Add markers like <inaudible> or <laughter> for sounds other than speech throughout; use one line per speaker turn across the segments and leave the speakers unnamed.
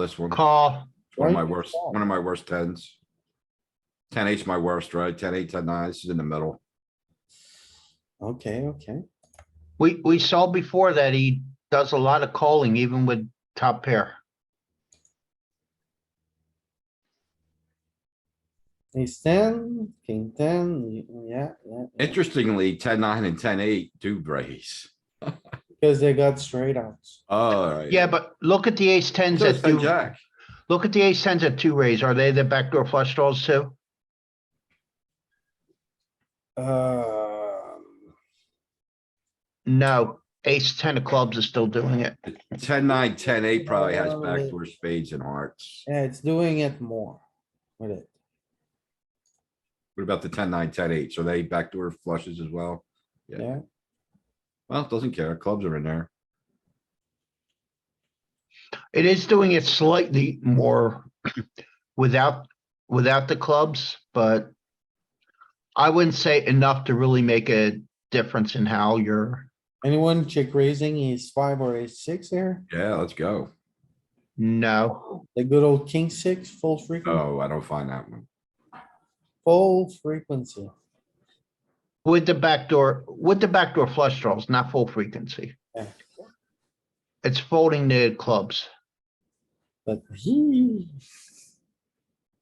This one,
Call.
one of my
Right?
worst, one of my worst tens. Ten eight's my worst, right? Ten eight, ten nine, this is in the middle.
Okay, okay.
We, we saw before that he does a lot of calling even with top pair.
Ace ten, king ten, y- yeah, yeah, yeah,
Interestingly, ten nine and ten eight do raise.
because they got straight outs.
Alright.
Yeah, but look at the ace tens
So it's
that
ten
do,
jack.
look at the ace tens at two raise. Are they the backdoor flush draws too?
Um,
No, ace ten of clubs is still doing it.
Ten nine, ten eight probably has
Um,
backdoor spades and hearts.
yeah, it's doing it more with it.
What about the ten nine, ten eight? So they backdoor flushes as well? Yeah.
Yeah,
Well, doesn't care. Clubs are in there.
It is doing it slightly more <clears throat> without, without the clubs, but I wouldn't say enough to really make a difference in how you're,
anyone check raising ace five or ace six here?
Yeah, let's go.
no.
The good old king six, full frequency,
Oh, I don't find that one.
full frequency.
With the backdoor, with the backdoor flush draws, not full frequency.
Yeah.
It's folding the clubs.
But he.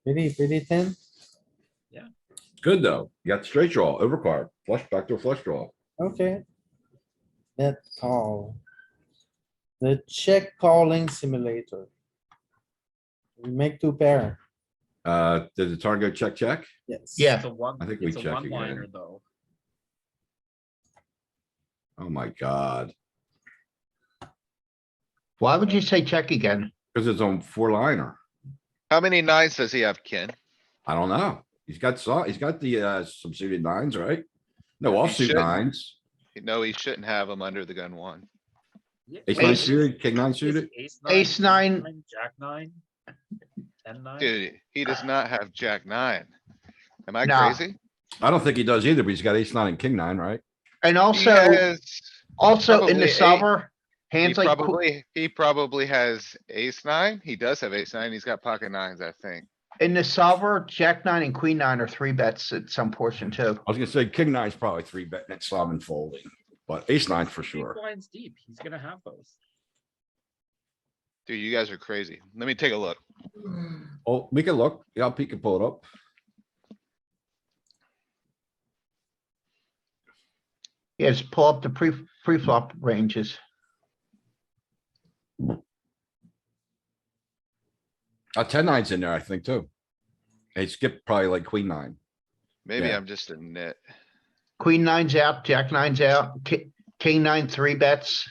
Pretty, pretty thin.
Good though. You got straight draw, overcard, flush, backdoor flush draw.
Okay. That call. The check calling simulator. We make two pair,
Uh, did the target go check, check?
yes.
Yeah.
It's a one,
I think we
it's a
check
one liner
again.
though.
Oh my god.
Why would you say check again?
Cause it's on four liner.
How many nines does he have, Ken?
I don't know. He's got saw, he's got the uh some suited nines, right? No
He
offsuit
should.
nines.
No, he shouldn't have them under the gun one.
Yeah,
Ace nine
Ace-
suited, king nine suited.
Ace
Ace nine.
nine, Jack nine. Ten nine.
Dude, he does not have jack nine. Am I
Uh, Nah.
crazy?
I don't think he does either, but he's got ace nine and king nine, right?
And also,
Yes,
also in
probably
the
eight.
solver,
he
hands like, que-
probably, he probably has ace nine. He does have ace nine. He's got pocket nines, I think.
in the solver, jack nine and queen nine are three bets at some portion too.
I was gonna say king nine's probably three betting at slam and folding, but ace nine for
Three
sure.
blinds deep, he's gonna have those.
Dude, you guys are crazy. Let me take a look.
Oh, we can look. Yeah, Pete can pull it up.
Yes, pull up the pre, pre-flop ranges.
Uh, ten nine's in there, I think, too. They skipped probably like queen nine.
Maybe
Yeah.
I'm just a nit.
Queen nine's out, jack nine's out, ki- king nine, three bets.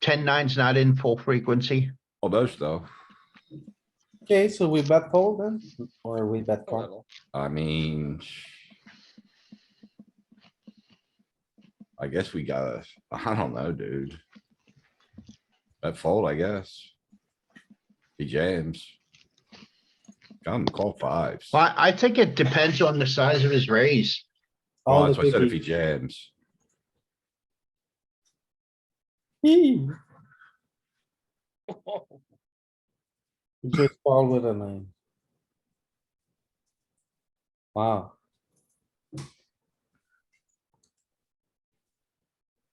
Ten nine's not in full frequency.
Almost though.
Okay, so we bet fold then, or we bet
A
call.
little.
I mean. I guess we gotta, <laughs> I don't know, dude. That fold, I guess. He jams. Come call fives. Well,
Well, I think it depends on the size of his raise.
All
that's
the
what I said, if he
biggies.
jams.
He Just call with a nine. Wow.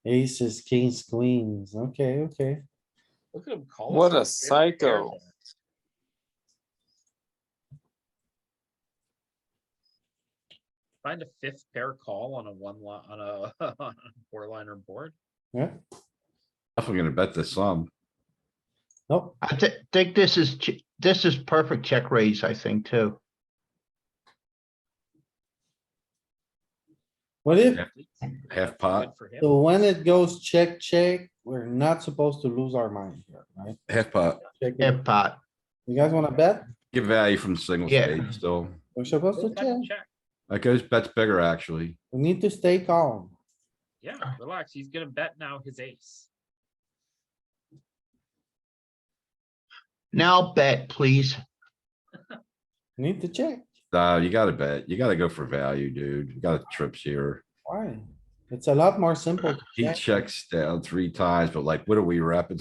Aces, kings, queens, okay, okay.
<laughs> Look at him calling.
What
some
a
straight pair
psycho.
there. Find a fifth pair call on a one line, on a, <laughs> on a four liner board.
Definitely gonna bet the sum.
Nope,
I thi- think this is, ch- this is perfect check raise, I think, too.
what if
Half pot.
Good for him.
So when it goes check, check, we're not supposed to lose our mind here, right?
Half pot.
Check it.
If uh, pot,
You guys wanna bet?
Give value from single
Yeah.
spade still.
We're supposed to
Check,
check.
check.
That goes, bets bigger, actually.
We need to stay calm.
Yeah, relax, he's gonna bet now his ace.
now bet, please.
We Need to check.
Uh, you gotta bet. You gotta go for value, dude. You gotta trips here.
Why? It's a lot more simple. to
He
check.
checks down three times, but like, what are we wrapping